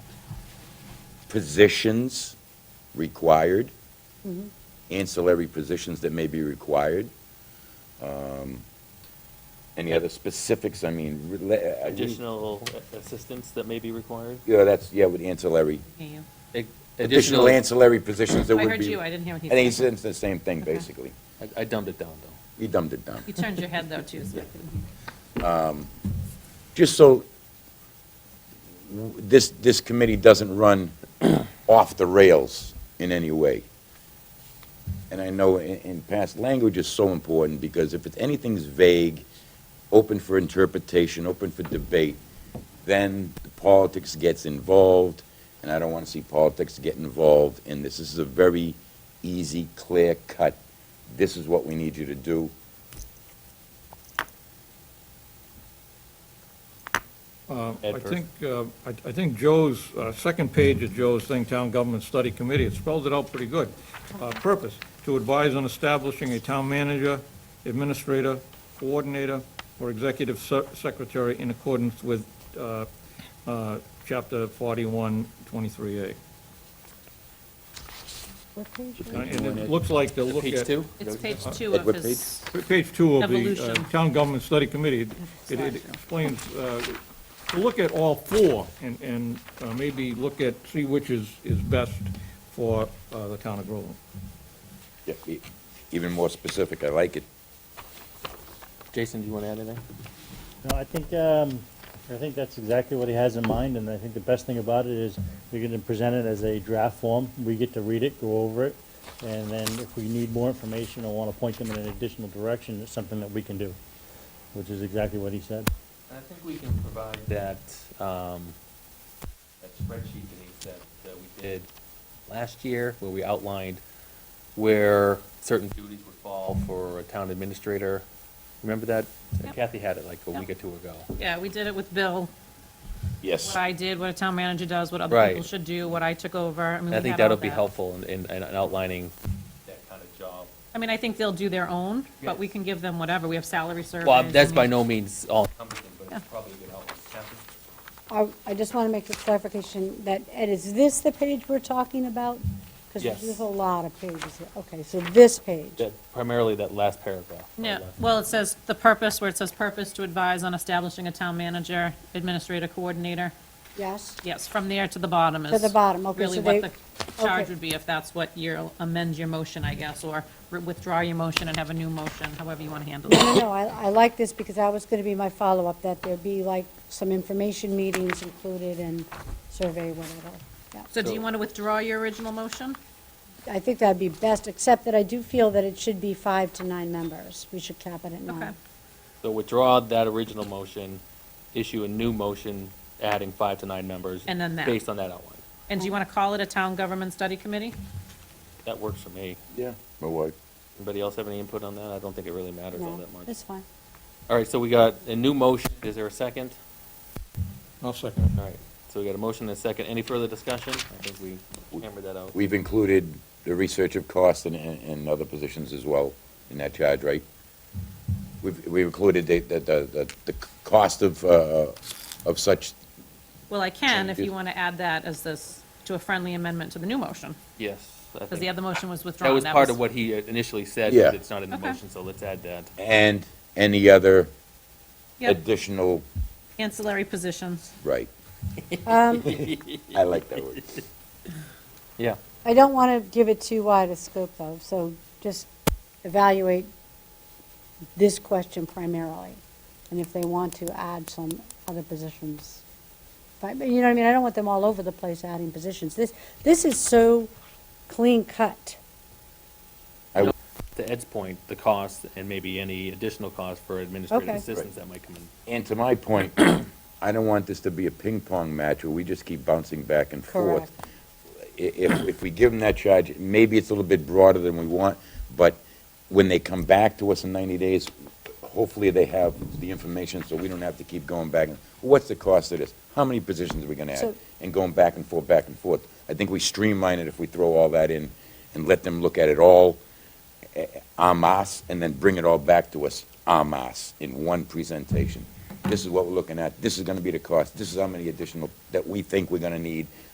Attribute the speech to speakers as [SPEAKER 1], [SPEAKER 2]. [SPEAKER 1] positions required,
[SPEAKER 2] Mm-hmm.
[SPEAKER 1] ancillary positions that may be required. Um, Any other specifics, I mean, rela- I wouldn't-
[SPEAKER 3] Additional assistance that may be required?
[SPEAKER 1] Yeah, that's, yeah, with ancillary,
[SPEAKER 2] you.
[SPEAKER 1] additional ancillary positions that
[SPEAKER 2] I
[SPEAKER 1] would be.
[SPEAKER 2] heard you, I didn't hear what
[SPEAKER 1] I
[SPEAKER 2] he
[SPEAKER 1] think it's
[SPEAKER 2] said.
[SPEAKER 1] it's the same thing,
[SPEAKER 2] Okay.
[SPEAKER 1] basically.
[SPEAKER 3] I- I dumbed it down, though.
[SPEAKER 1] You dumbed it down.
[SPEAKER 2] You turned your head though, too, so I couldn't hear.
[SPEAKER 1] just so w- this, this committee doesn't run off the rails in any way. And I know in, in past, language is so important, because if it's, anything's vague, open for interpretation, open for debate, then the politics gets involved, and I don't want to see politics get involved in this. This is a very easy, clear cut, this is what we need you to do.
[SPEAKER 4] Uh,
[SPEAKER 3] Ed
[SPEAKER 4] I
[SPEAKER 3] first.
[SPEAKER 4] think, uh, I I think Joe's, uh, second page of Joe's thing, Town Government Study Committee, it spells it out pretty good. Uh, Purpose, to advise on establishing a town manager, administrator, coordinator, or executive se- secretary in accordance with uh, uh, Chapter 4123A. Uh, And it looks like they'll look at...
[SPEAKER 3] Page two?
[SPEAKER 2] It's
[SPEAKER 3] Uh-huh.
[SPEAKER 2] page two of
[SPEAKER 1] Edward
[SPEAKER 2] his,
[SPEAKER 4] Page two of the uh,
[SPEAKER 2] Evolution.
[SPEAKER 4] Town Government Study Committee, it it
[SPEAKER 2] Slideshow.
[SPEAKER 4] explains, uh, to look at all four and, and uh, maybe look at, see which is, is best for uh, the town of Groveland.
[SPEAKER 1] Yeah, e- Even more specific, I like it.
[SPEAKER 3] Jason, do you want to add anything?
[SPEAKER 5] No, I think, um, I think that's exactly what he has in mind, and I think the best thing about it is you're gonna present it as a draft form. We get to read it, go over it, and then if we need more information or wanna point them in an additional direction, it's something that we can do, which is exactly what he said.
[SPEAKER 3] I think we can provide that, um, that spreadsheet Denise, that, that we did last year, where we outlined where certain duties would fall for a town administrator. Remember that?
[SPEAKER 2] Yep.
[SPEAKER 3] Kathy had it like a week or
[SPEAKER 2] Yep.
[SPEAKER 3] two ago.
[SPEAKER 2] yeah, we did it with Bill,
[SPEAKER 1] Yes.
[SPEAKER 2] what I did, what a town manager does, what other
[SPEAKER 3] Right.
[SPEAKER 2] people should do, what I took over, I mean,
[SPEAKER 3] And
[SPEAKER 2] we
[SPEAKER 3] I think
[SPEAKER 2] had all
[SPEAKER 3] that'll be
[SPEAKER 2] that.
[SPEAKER 3] helpful in, in in outlining. That kind of job.
[SPEAKER 2] I mean, I think they'll do their own, but we can give them whatever, we have salary surveys.
[SPEAKER 3] Well,
[SPEAKER 2] I
[SPEAKER 3] that's by
[SPEAKER 2] mean-
[SPEAKER 3] no means all encompassing, but
[SPEAKER 2] Yeah.
[SPEAKER 3] it's probably a good outline. Kathy?
[SPEAKER 6] I, I just want to make a clarification that, Ed, is this the page we're talking about?
[SPEAKER 3] Yes.
[SPEAKER 6] Because there's a lot of pages here. Okay, so this page.
[SPEAKER 3] That, primarily that last paragraph. or
[SPEAKER 2] Yeah,
[SPEAKER 3] last-
[SPEAKER 2] well, it says the purpose, where it says purpose to advise on establishing a town manager, administrator, coordinator.
[SPEAKER 6] Yes?
[SPEAKER 2] Yes, from there to the bottom is.
[SPEAKER 6] the bottom, okay,
[SPEAKER 2] Really
[SPEAKER 6] so
[SPEAKER 2] what
[SPEAKER 6] they-
[SPEAKER 2] the charge
[SPEAKER 6] okay.
[SPEAKER 2] would be if that's what your, amend your motion, I guess, or re- withdraw your motion and have a new motion, however you want to handle
[SPEAKER 6] No,
[SPEAKER 2] it.
[SPEAKER 6] no, I, I like this because that was going to be my follow-up, that there'd be like some information meetings included and survey, whatever. Yeah.
[SPEAKER 2] So do you want to withdraw your original motion?
[SPEAKER 6] I think that'd be best, except that I do feel that it should be five to nine members. We should cap it at
[SPEAKER 2] Okay.
[SPEAKER 6] nine.
[SPEAKER 3] So withdraw that original motion, issue a new motion adding five to nine members.
[SPEAKER 2] And then that.
[SPEAKER 3] Based on that outline.
[SPEAKER 2] And do you want to call it a town government study committee?
[SPEAKER 3] That works for me.
[SPEAKER 1] Yeah. My wife.
[SPEAKER 3] Anybody else have any input on that? I don't think it really matters all
[SPEAKER 6] No,
[SPEAKER 3] that much.
[SPEAKER 6] it's fine.
[SPEAKER 3] All right, so we got a new motion. Is there a second?
[SPEAKER 4] I'll second it.
[SPEAKER 3] All right, so we got a motion and a second. Any further discussion? I think we hammered that out.
[SPEAKER 1] We've included the research of cost and, and and other positions as well in that charge, right? We've, we've included the, the, the, the- the cost of, uh, of such,
[SPEAKER 2] Well, I can, if you
[SPEAKER 1] Changes.
[SPEAKER 2] want to add that as this, to a friendly amendment to the new motion,
[SPEAKER 3] Yes. I
[SPEAKER 2] because the
[SPEAKER 3] think-
[SPEAKER 2] other motion was
[SPEAKER 3] That
[SPEAKER 2] withdrawn.
[SPEAKER 3] was part of what he initially said,
[SPEAKER 1] Yeah.
[SPEAKER 3] but it's not in the
[SPEAKER 2] Okay.
[SPEAKER 3] motion, so let's add that.
[SPEAKER 1] and any other
[SPEAKER 2] Yep,
[SPEAKER 1] additional,
[SPEAKER 2] ancillary positions.
[SPEAKER 1] right,
[SPEAKER 6] Um,
[SPEAKER 1] I like that word.
[SPEAKER 3] Yeah.
[SPEAKER 6] I don't want to give it too wide a scope, though, so just evaluate this question primarily, and if they want to add some other positions. But, but you know what I mean, I don't want them all over the place adding positions. This, this is so clean cut.
[SPEAKER 3] To Ed's point, the cost and maybe any additional cost for administrative
[SPEAKER 6] Okay.
[SPEAKER 3] assistance that might come in.
[SPEAKER 1] And to my point, I don't want this to be a ping pong match where we just keep bouncing back and forth.
[SPEAKER 6] Correct.
[SPEAKER 1] I- If, if we give them that charge, maybe it's a little bit broader than we want, but when they come back to us in ninety days, hopefully they have the information so we don't have to keep going back. and What's the cost of this? How many positions are we gonna add?
[SPEAKER 6] So-
[SPEAKER 1] And going back and forth, back and forth. I think we streamline it if we throw all that in and let them look at it all eh, en masse, and then bring it all back to us en masse in one presentation. This is what we're looking at, this is gonna be the cost, this is how many additional that we think we're gonna need,